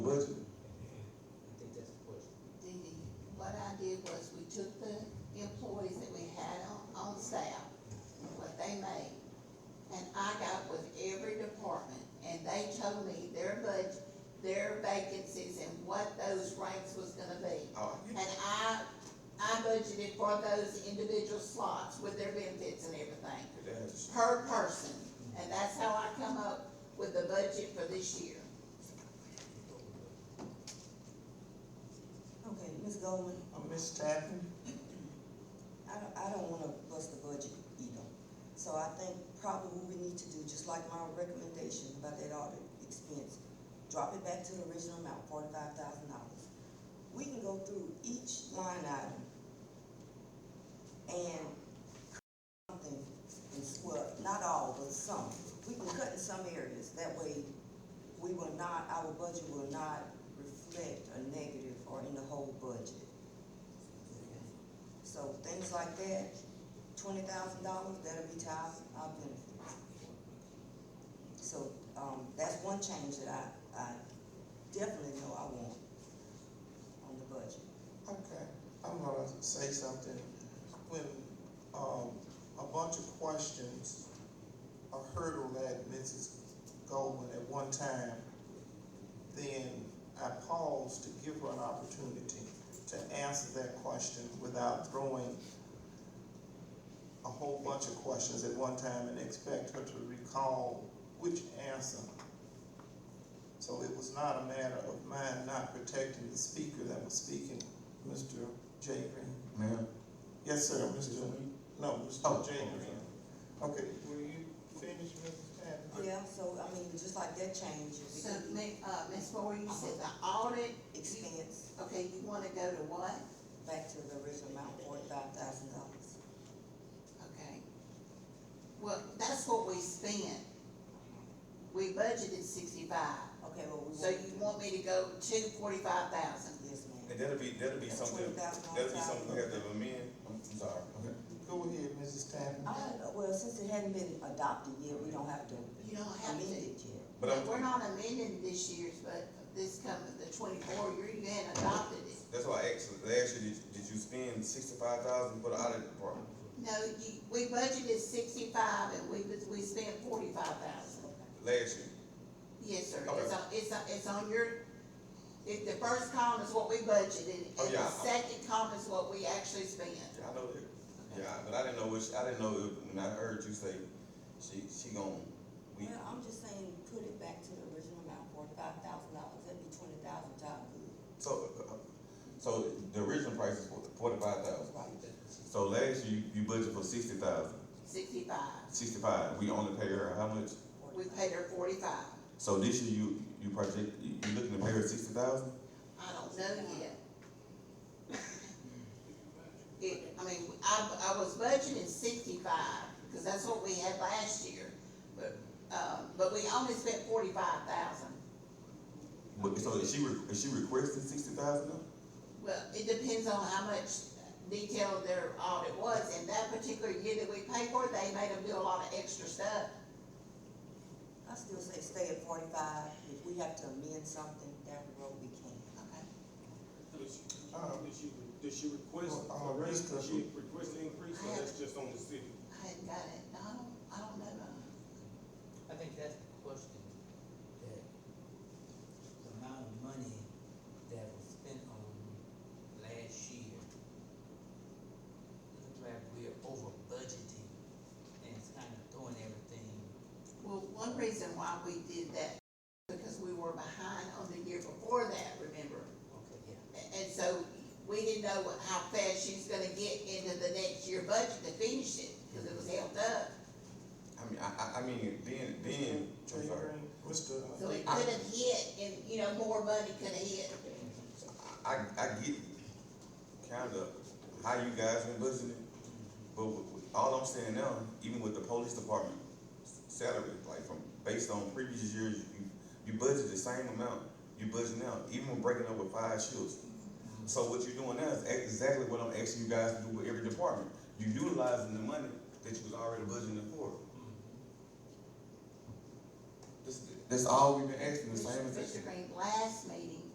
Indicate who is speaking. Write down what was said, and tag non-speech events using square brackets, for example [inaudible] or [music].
Speaker 1: vacancies and what those ranks was gonna be.
Speaker 2: Oh, I get
Speaker 1: And I, I budgeted for those individual slots with their benefits and everything,
Speaker 2: it. That is-
Speaker 1: per person. And that's how I come up with the budget for this year.
Speaker 3: Okay, Ms. Goldman,
Speaker 4: Oh, Ms. Tappan?
Speaker 3: I don't, I don't wanna bust the budget either. So I think probably what we need to do, just like my recommendation about that audit expense, drop it back to the original amount, forty-five thousand dollars. We can go through each line item and something, and s- well, not all, but some. We can cut in some areas, that way we will not, our budget will not reflect a negative or in the whole budget. So things like that, twenty thousand dollars, that'll be tied our benefits. So, um, that's one change that I, I definitely know I want on the budget.
Speaker 4: Okay, I'm gonna say something. When, um, a bunch of questions are hurdled at Mrs. Goldman at one time, then I pause to give her an opportunity to answer that question without throwing a whole bunch of questions at one time and expect her to recall which answer so it was not a matter of mine not protecting the speaker that was speaking, Mr. J. Green.
Speaker 5: Ma'am?
Speaker 4: Yes, sir,
Speaker 5: Mr.
Speaker 4: Mr.
Speaker 5: Green?
Speaker 4: No,
Speaker 5: Oh,
Speaker 4: Mr. J. Green. Okay, will you finish, Mrs. Patton?
Speaker 3: Yeah, so, I mean, just like that change, it
Speaker 1: So,
Speaker 3: could be
Speaker 1: Mi- uh, Ms. Moore, you said the audit,
Speaker 3: expense
Speaker 1: okay, you wanna go to what?
Speaker 3: back to the original amount, forty-five thousand dollars.
Speaker 1: Okay. Well, that's what we spent. We budgeted sixty-five,
Speaker 3: Okay, well, we.
Speaker 1: so you want me to go to forty-five thousand?
Speaker 3: Yes, ma'am.
Speaker 2: And that'll be, that'll be
Speaker 3: That's
Speaker 2: something,
Speaker 3: $20,000
Speaker 2: that'll be something we have to amend.
Speaker 5: I'm, I'm sorry. Okay.
Speaker 4: Go ahead, Mrs. Patton.
Speaker 3: I don't know, Uh, well, since it hadn't been adopted yet, we don't have to
Speaker 1: You don't have to.
Speaker 3: amend it yet.
Speaker 5: But
Speaker 1: But we're
Speaker 5: I'm,
Speaker 1: not amending this year's, but this coming, the twenty-four, you're, you hadn't adopted it.
Speaker 5: that's why I asked, last year, did, did you spend sixty-five thousand for the audit department?
Speaker 1: No, you, we budgeted sixty-five and we, was- we spent forty-five thousand.
Speaker 5: Last year?
Speaker 1: Yes, sir,
Speaker 5: Okay.
Speaker 1: it's on, it's on, it's on your, it, the first column is what we budgeted,
Speaker 5: Oh,
Speaker 1: and the
Speaker 5: yeah.
Speaker 1: second column is what we actually spent.
Speaker 5: Yeah, I know that. Yeah, but I didn't know which, I didn't know if, when I heard you say, she, she gon', we,
Speaker 3: Well, I'm just saying, put it back to the original amount, forty-five thousand dollars, that'd be twenty thousand dollars.
Speaker 5: so, uh, so the original price is forty-five thousand. So last year, you budgeted for sixty thousand,
Speaker 1: Sixty-five,
Speaker 5: sixty-five, we only pay her how much?
Speaker 1: we paid her forty-five,
Speaker 5: So this year, you, you project, you, you looking to pay her sixty thousand?
Speaker 1: I don't know yet. [laughs] It, I mean, I, I was budgeting sixty-five, cause that's what we had last year, but, um, but we only spent forty-five thousand.
Speaker 5: But, so is she, re- is she requesting sixty thousand now?
Speaker 1: Well, it depends on how much detail their audit was, and that particular year that we paid for, it, they made them do a lot of extra stuff.
Speaker 3: I still say stay at forty-five, if we have to amend something down the road, we can.
Speaker 6: Did she,
Speaker 4: Uh,
Speaker 6: did she, did she request
Speaker 4: uh,
Speaker 6: a raise,
Speaker 4: Mr.
Speaker 6: did she request an increase, or that's just on the city?
Speaker 1: I hadn't got it, no, I don't, I don't know.
Speaker 7: I think that's the question, that the amount of money that was spent on last year, looks like we're over budgeting, and it's kind of throwing everything,
Speaker 1: Well, one reason why we did that, because we were behind on the year before that, remember?
Speaker 7: okay, yeah.
Speaker 1: A- And so, we didn't know what- how fast she was gonna get into the next year budget to finish it, cause it was held up.
Speaker 5: I mean, I, I, I mean, being, being,
Speaker 4: J.
Speaker 5: I'm sorry,
Speaker 4: Green, Mr.
Speaker 1: So it could've hit, and, you know, more money could've hit.
Speaker 5: I, I get kind of how you guys been budgeting,
Speaker 7: Mm-hmm.
Speaker 5: but w- w- all I'm saying now, even with the police department s- salary, like from, based on previous years, you, you budget the same amount you budget now, even when breaking up with five shields. So what you're doing now is ex- exactly what I'm asking you guys to do with every department. You utilizing the money that you was already budgeting for.
Speaker 7: Mm-hmm.
Speaker 5: That's, that's all we've been asking, the same
Speaker 1: Mr.
Speaker 5: thing.
Speaker 1: Green, last meeting,